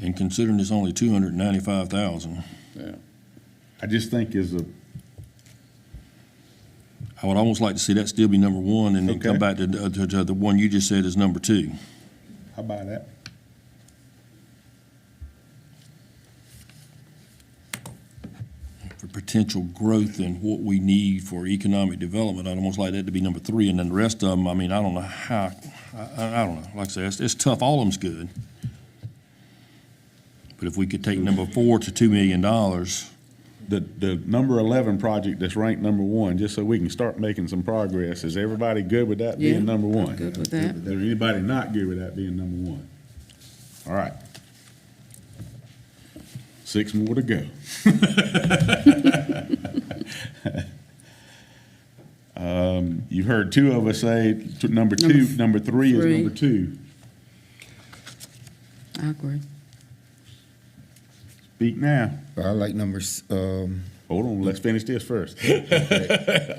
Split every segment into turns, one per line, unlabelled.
And considering it's only two hundred and ninety-five thousand,
Yeah. I just think is a,
I would almost like to see that still be number one and then come
Okay.
back to, to, to the one you just said is number two.
how about that?
For potential growth and what we need for economic development, I'd almost like that to be number three. And then the rest of them, I mean, I don't know how, I, I I don't know. Like I said, it's, it's tough. All of them's good. But if we could take number four to two million dollars,
The, the number eleven project that's ranked number one, just so we can start making some progress, is everybody good with that
Yeah,
being number
I'm
one?
good with that.
Is there anybody not good with that being number one? All right. Six more to go. Um, you've heard two of us say, t- number
Number
two,
th-
number three is
three.
number two.
I agree.
Speak now.
I like numbers. Um,
Hold on, let's finish this first.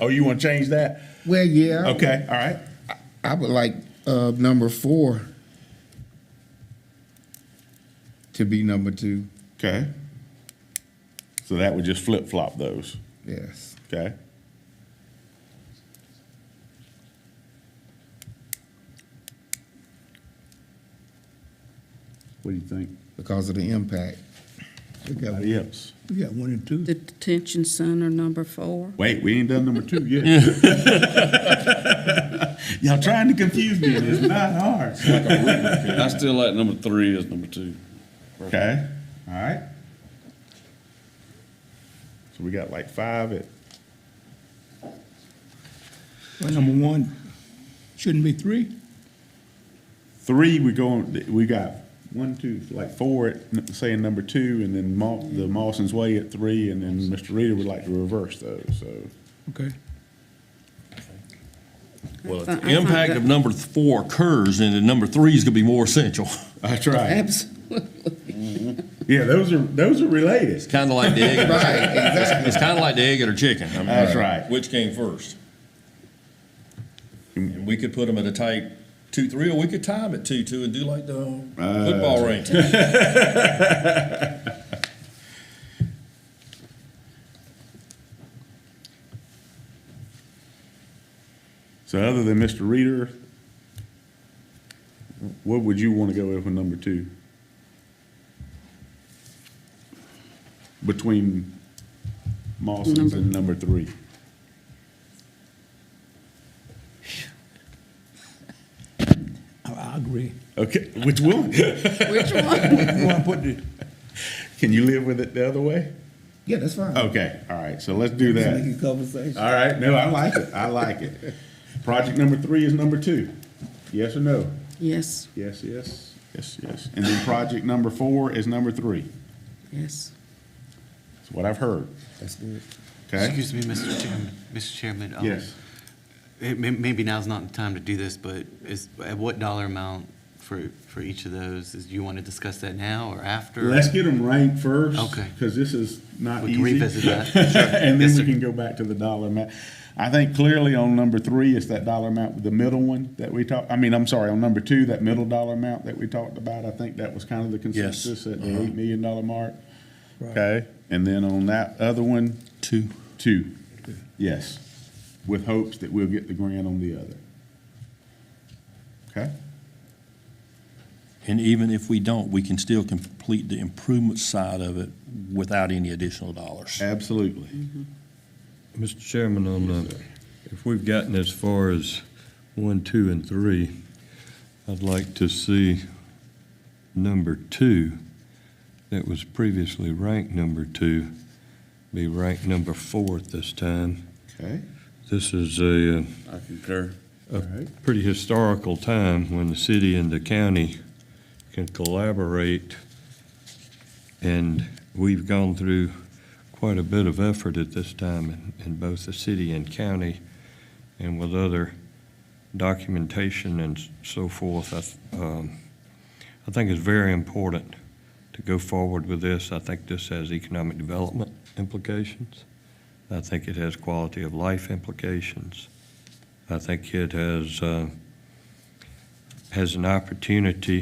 oh, you want to change that?
well, yeah,
Okay, all right.
I would like uh, number four to be number two.
Okay. So that would just flip flop those.
Yes.
Okay. What do you think?
Because of the impact. We got,
Anybody else?
we got one and two.
The detention center number four.
Wait, we ain't done number two yet. Y'all trying to confuse me, and it's not hard.
I still like number three as number two.
Okay, all right. So we got like five at
Well, number one, shouldn't be three.
three, we going, we got one, two, like four at, n- saying number two, and then Ma, the Mawson's Way at three, and then Mr. Reader would like to reverse those, so.
Okay.
well, if
Uh, I- I
the
find
impact
that-
of number th- four occurs, then the number three is gonna be more essential.
That's right.
Absolutely.
Yeah, those are, those are related.
Kinda like the egg and
Right, exactly.
It's kind of like the egg or the chicken. I mean,
That's right.
Which came first? And we could put them at a tight two, three, or we could time it two, two, and do like the football rankings.
So other than Mr. Reader, what would you want to go with for number two? Between Mawson's and number three?
I, I agree.
Okay, which one?
Which one?
You wanna put the,
Can you live with it the other way?
Yeah, that's fine.
Okay, all right, so let's do
Just
that.
making conversation.
All right, no, I like it, I like it. Project number three is number two. Yes or no?
Yes,
Yes, yes, yes, yes. And then project number four is number three.
yes.
That's what I've heard,
That's good.
okay?
Excuse me, Mr. Chairman. Mr. Chairman. um,
Yes.
it may- Maybe now's not the time to do this, but is, at what dollar amount for, for each of those? Is, do you want to discuss that now or after?
Let's get them ranked first.
Okay.
Because this is not
We
easy.
can revisit that.
And
Yes,
then we
sir.
can go back to the dollar amount. I think clearly on number three, it's that dollar amount, with the middle one that we talked, I mean, I'm sorry, on number two, that middle dollar amount that we talked about, I think that was kind of the
Yes.
consensus at the eight million dollar mark. Okay, and then on that other one,
Two.
two, yes, with hopes that we'll get the grant on the other. Okay?
And even if we don't, we can still complete the improvement side of it without any additional dollars.
Absolutely.
Mr. Chairman, on the, if we've gotten as far as one, two, and three, I'd like to see number two, that was previously ranked number two, be ranked number four at this time.
Okay,
This is a, uh,
I concur.
all right.
pretty historical time when the city and the county can collaborate. And we've gone through quite a bit of effort at this time in, in both the city and county and with other documentation and s- so forth. I, th- um, I think it's very important to go forward with this. I think this has economic development implications. I think it has quality of life implications. I think it has, uh, has an opportunity